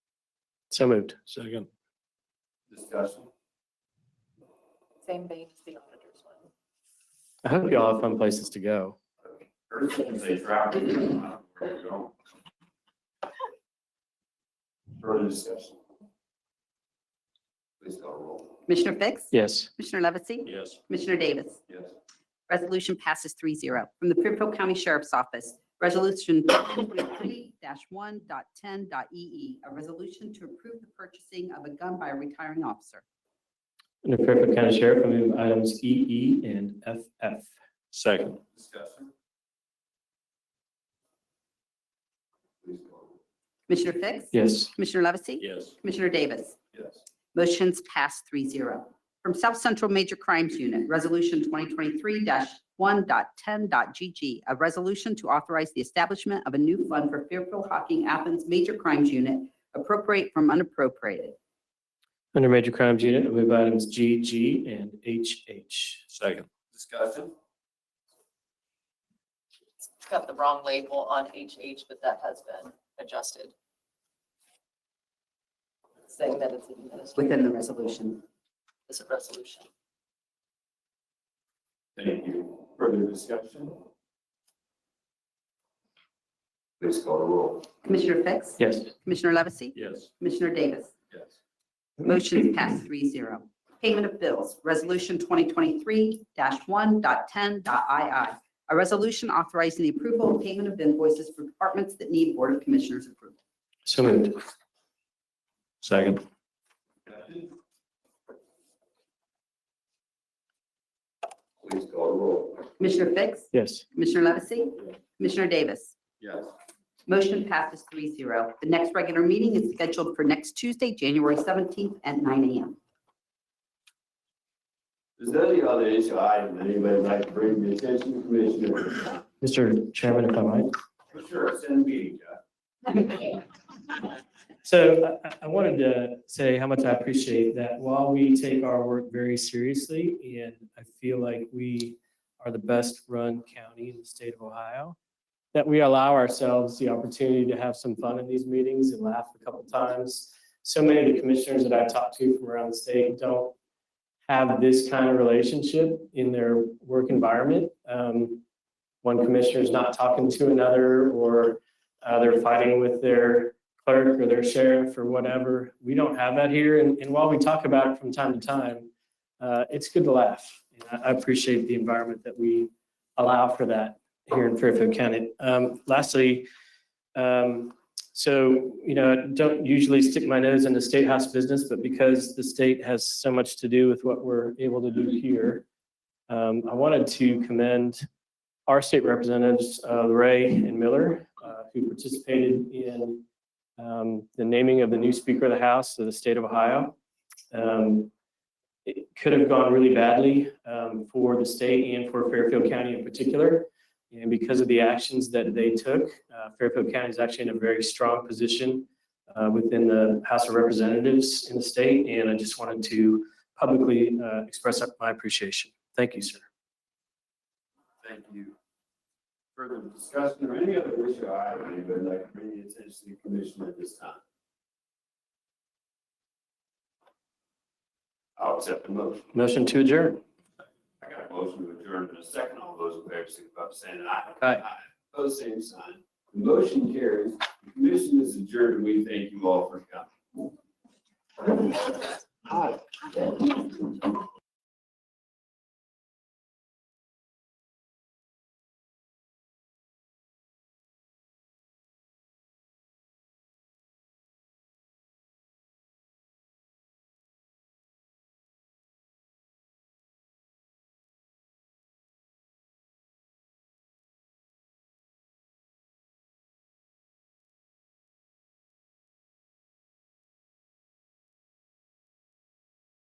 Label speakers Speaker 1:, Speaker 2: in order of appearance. Speaker 1: So moved. Second.
Speaker 2: Discussion.
Speaker 3: Same vein as the auditor's one.
Speaker 1: I hope y'all have fun places to go.
Speaker 2: First thing they drop. it, I don't know where we're going. Further discussion. Please call roll.
Speaker 4: Commissioner Fix?
Speaker 1: Yes.
Speaker 4: Commissioner Levesey?
Speaker 2: Yes.
Speaker 4: Commissioner Davis?
Speaker 2: Yes.
Speaker 4: Resolution passes 3-0 From the Fairfield County Sheriff's Office, Resolution 2023-1.10.e.e., E a resolution to approve the purchasing of a gun by a retiring officer.
Speaker 1: Under Fairfield County Sheriff, I move items EE and FF. Second.
Speaker 2: Discussion. Please call roll.
Speaker 4: Commissioner Fix?
Speaker 1: Yes.
Speaker 4: Commissioner Levesey?
Speaker 2: Yes.
Speaker 4: Commissioner Davis?
Speaker 2: Yes.
Speaker 4: Motion's passed 3-0 From South Central Major Crimes Unit, Resolution 2023-1.10.g.g., a resolution to authorize the establishment of a new fund for Fairfield Hocking Athens Major Crimes Unit, appropriate from unappropriated.
Speaker 1: Under Major Crimes Unit, I move items GG and HH. Second.
Speaker 2: Discussion.
Speaker 3: It's got the wrong label on HH, but that has been adjusted. Saying that it's administered
Speaker 4: within the resolution.
Speaker 3: as a resolution.
Speaker 2: Thank you. Further discussion. Please call roll.
Speaker 4: Commissioner Fix?
Speaker 1: Yes.
Speaker 4: Commissioner Levesey?
Speaker 2: Yes.
Speaker 4: Commissioner Davis?
Speaker 2: Yes.
Speaker 4: Motion's passed three zero. Payment of bills, Resolution 2023-1.10.II. A resolution authorizing the approval of payment of invoices for departments that need Board of Commissioners approval.
Speaker 1: So moved. Second.
Speaker 2: Please call roll.
Speaker 4: Commissioner Fix?
Speaker 1: Yes.
Speaker 4: Commissioner Levesey? Commissioner Davis?
Speaker 2: Yes.
Speaker 4: Motion passes three zero. The next regular meeting is scheduled for next Tuesday, January 17th at nine a.m.
Speaker 2: Is there any other issue item that anybody would like to bring to the attention of the commissioner?
Speaker 1: Mr. Chairman, if I might.
Speaker 2: Sure, send me, Jeff.
Speaker 1: So I- I, I wanted to say how much I appreciate that while we take our work very seriously, and I feel like we are the best run county in the state of Ohio, that we allow ourselves the opportunity to have some fun in these meetings and laugh a couple times. So many of the commissioners that I talk to from around the state don't have this kind of relationship in their work environment. Um, One commissioner's not talking to another, or uh, they're fighting with their clerk or their sheriff or whatever. We don't have that here. And, and while we talk about it from time to time, uh, it's good to laugh. And I, I appreciate the environment that we allow for that here in Fairfield County. Um, lastly, um, so, you know, I don't usually stick my nose into state house business, but because the state has so much to do with what we're able to do here, um, I wanted to commend our state representatives, uh, Ray and Miller, uh, who participated in um, the naming of the new Speaker of the House of the state of Ohio. Um, It could have gone really badly um, for the state and for Fairfield County in particular. And because of the actions that they took, uh, Fairfield County is actually in a very strong position uh, within the House of Representatives in the state. And I just wanted to publicly uh, express my appreciation. Thank you, sir.
Speaker 2: Thank you. Further discussion or any other issue I would even like to bring the attention to the commission at this time? I'll accept the motion.
Speaker 1: Motion to adjourn.
Speaker 2: I got a motion to adjourn in a second. All those in favor, signify by saying aye.
Speaker 1: Aye.
Speaker 2: Pose same sign. The motion carries. The commission is adjourned. and We thank you all for coming. Aye.